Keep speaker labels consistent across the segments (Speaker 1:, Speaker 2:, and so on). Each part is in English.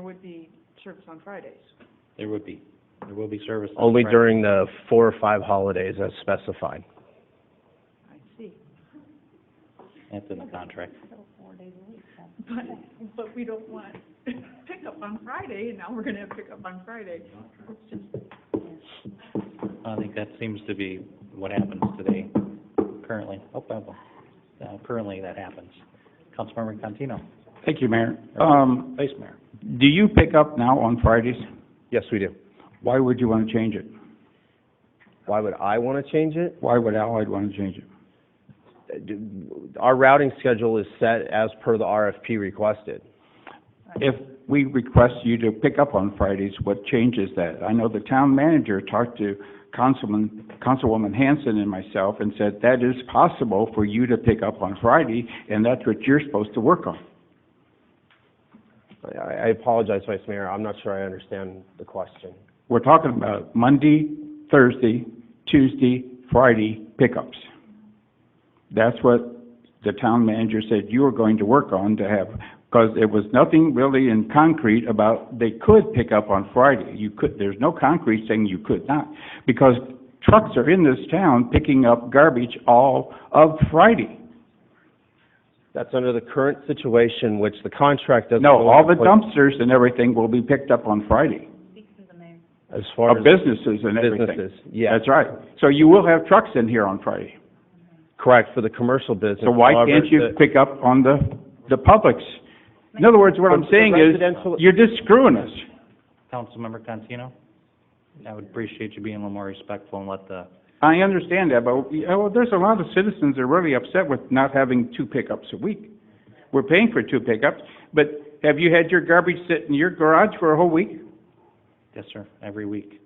Speaker 1: would be service on Fridays.
Speaker 2: There would be, there will be service. on
Speaker 3: Only
Speaker 2: Friday.
Speaker 3: during the four or five holidays as specified.
Speaker 1: I see.
Speaker 2: That's in the contract.
Speaker 1: But, but we don't want pickup on Friday, and now we're gonna have pickup on Friday. It's just-
Speaker 2: I think that seems to be what happens today, currently. Oh, oh, oh. Uh, currently that happens. Councilmember Contino,
Speaker 4: Thank you, Mayor. Um,
Speaker 2: Vice Mayor.
Speaker 4: do you pick up now on Fridays?
Speaker 3: Yes, we do.
Speaker 4: Why would you want to change it?
Speaker 3: Why would I want to change it?
Speaker 4: Why would Allied want to change it?
Speaker 3: Uh, d- Our routing schedule is set as per the RFP requested.
Speaker 4: If we request you to pick up on Fridays, what changes that? I know the town manager talked to Councilman, Councilwoman Hanson and myself and said that is possible for you to pick up on Friday, and that's what you're supposed to work on.
Speaker 3: I- I apologize, Vice Mayor, I'm not sure I understand the question.
Speaker 4: We're talking about Monday, Thursday, Tuesday, Friday pickups. That's what the town manager said you were going to work on to have, because it was nothing really in concrete about they could pick up on Friday. You could, there's no concrete saying you could not, because trucks are in this town picking up garbage all of Friday.
Speaker 3: That's under the current situation, which the contract doesn't...
Speaker 4: No, all the
Speaker 3: contemplate
Speaker 4: dumpsters and everything will be picked up on Friday,
Speaker 3: As
Speaker 4: of
Speaker 3: far as
Speaker 4: businesses and everything.
Speaker 3: businesses, yeah,
Speaker 4: That's right. So you will have trucks in here on Friday.
Speaker 3: correct, for the commercial business.
Speaker 4: So why
Speaker 3: However,
Speaker 4: can't you
Speaker 3: the-
Speaker 4: pick up on the, the publics? In other words, what I'm
Speaker 3: But the
Speaker 4: saying is,
Speaker 3: residential-
Speaker 4: you're just screwing us.
Speaker 2: Councilmember Contino, I would appreciate you being a little more respectful and let the,
Speaker 4: I understand that, but, you know, there's a lot of citizens that are really upset with not having two pickups a week. We're paying for two pickups, but have you had your garbage sit in your garage for a whole week
Speaker 2: yes, sir, every week.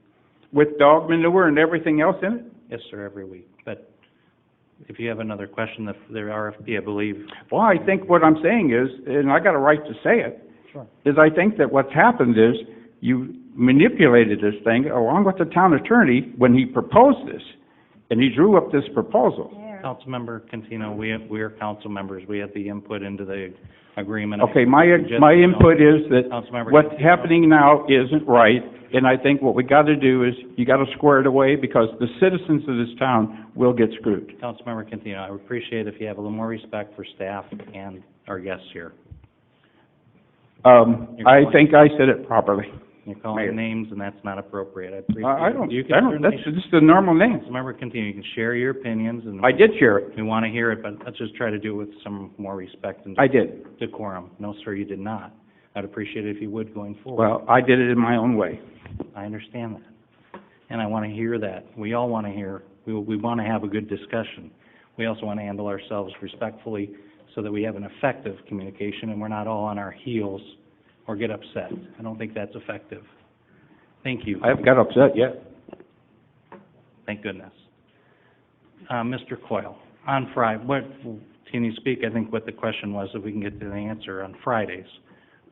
Speaker 4: with dog manure and everything else in it?
Speaker 2: Yes, sir, every week. But if you have another question, the, the RFP, I believe,
Speaker 4: Well, I think what I'm saying is, and I got a right to say it,
Speaker 2: Sure.
Speaker 4: is I think that what's happened is you manipulated this thing along with the town attorney when he proposed this, and he drew up this proposal.
Speaker 2: Councilmember Contino, we, we are council members. We have the input into the agreement.
Speaker 4: Okay, my,
Speaker 2: Just-
Speaker 4: my input is that
Speaker 2: Councilmember
Speaker 4: what's
Speaker 2: Contino.
Speaker 4: happening now isn't right, and I think what we got to do is, you got to square it away because the citizens of this town will get screwed.
Speaker 2: Councilmember Contino, I would appreciate if you have a little more respect for staff and our guests here.
Speaker 4: Um,
Speaker 2: Your
Speaker 4: I
Speaker 2: point.
Speaker 4: think I said it properly.
Speaker 2: You're
Speaker 4: Mayor.
Speaker 2: calling names, and that's not appropriate. I appreciate it.
Speaker 4: I I don't,
Speaker 2: You can
Speaker 4: I don't,
Speaker 2: certainly-
Speaker 4: that's just the normal name.
Speaker 2: Councilmember Contino, you can share your opinions, and
Speaker 4: I did share it.
Speaker 2: we want to hear it, but let's just try to do it with some more respect and
Speaker 4: I did.
Speaker 2: decorum. No, sir, you did not. I'd appreciate it if you would going forward.
Speaker 4: Well, I did it in my own way.
Speaker 2: I understand that. And I want to hear that. We all want to hear, we, we want to have a good discussion. We also want to handle ourselves respectfully so that we have an effective communication and we're not all on our heels or get upset. I don't think that's effective. Thank you.
Speaker 4: I haven't got upset yet.
Speaker 2: Thank goodness. Uh, Mr. Coyle, on Friday, what, can you speak, I think what the question was, if we can get to the answer, on Fridays?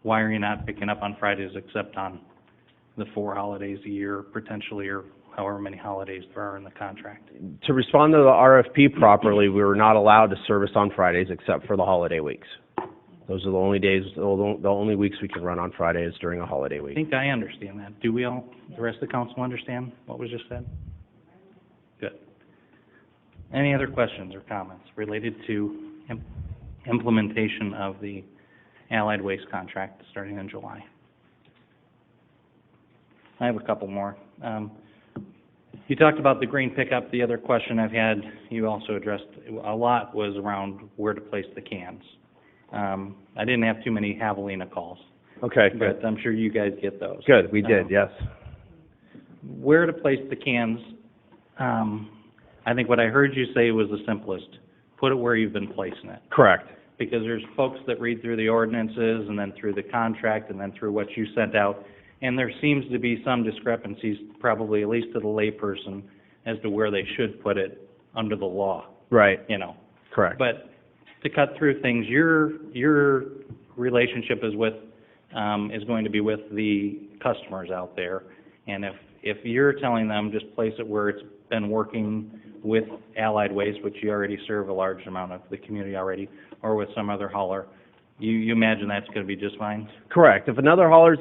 Speaker 2: Why are you not picking up on Fridays except on the four holidays a year, potentially, or however many holidays there are in the contract?
Speaker 3: To respond to the RFP properly, we were not allowed to service on Fridays except for the holiday weeks. Those are the only days, the only the only weeks we can run on Friday is during a holiday
Speaker 2: I
Speaker 3: week.
Speaker 2: think I understand that. Do we all, the rest of the council understand what was just said? Good. Any other questions or comments related to im- implementation of the Allied Waste contract starting in July? I have a couple more. Um, you talked about the green pickup. The other question I've had, you also addressed a lot, was around where to place the cans. Um, I didn't have too many javelina calls.
Speaker 3: Okay, good,
Speaker 2: But I'm sure you guys get those. Um,
Speaker 3: good, we did, yes.
Speaker 2: Where to place the cans, um, I think what I heard you say was the simplest. Put it where you've been placing it.
Speaker 3: Correct,
Speaker 2: Because there's folks that read through the ordinances and then through the contract and then through what you sent out. And there seems to be some discrepancies, probably at least to the layperson, as to where they should put it under the law,
Speaker 3: right,
Speaker 2: you know?
Speaker 3: correct,
Speaker 2: But to cut through things, your, your relationship is with, um, is going to be with the customers out there. And if, if you're telling them, just place it where it's been working with Allied Waste, which you already serve a large amount of the community already, or with some other hauler, you, you imagine that's gonna be just fine?
Speaker 3: correct. If another hauler's